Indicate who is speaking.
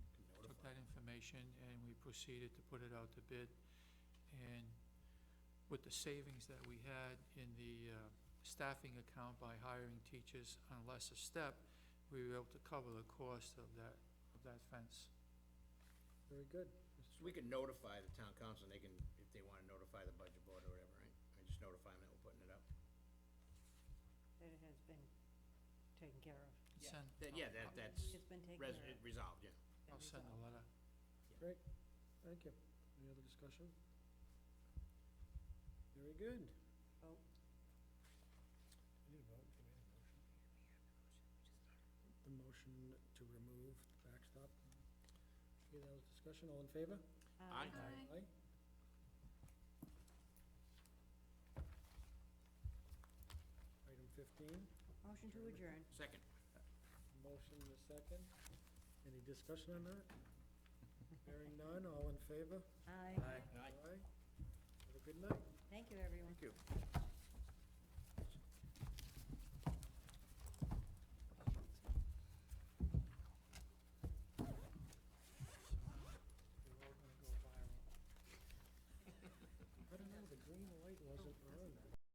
Speaker 1: information, and we proceeded to put it out to bid. And with the savings that we had in the uh, staffing account by hiring teachers on a lesser step, we were able to cover the cost of that, of that fence.
Speaker 2: Very good.
Speaker 3: So we can notify the town council, and they can, if they want to notify the budget board or whatever, right? I just notify them that we're putting it up.
Speaker 4: that it has been taken care of.
Speaker 1: Send-
Speaker 3: That- Yeah, that, that's
Speaker 4: It's been taken
Speaker 3: res-
Speaker 4: care of.
Speaker 3: resolved, yeah.
Speaker 1: I'll send a letter.
Speaker 2: Thank you. Any other discussion? Very good.
Speaker 4: Oh,
Speaker 2: The motion to remove the backstop. Any other discussion? All in favor?
Speaker 3: Aye.
Speaker 4: um,
Speaker 5: Aye.
Speaker 2: Aye. Item fifteen,
Speaker 4: Motion to adjourn.
Speaker 3: Second.
Speaker 2: motion to second. Any discussion on that? Hearing none, all in favor?
Speaker 4: Aye.
Speaker 3: Aye.
Speaker 2: Have a good night.
Speaker 4: Thank you, everyone.
Speaker 3: you.
Speaker 2: I don't know, the green light wasn't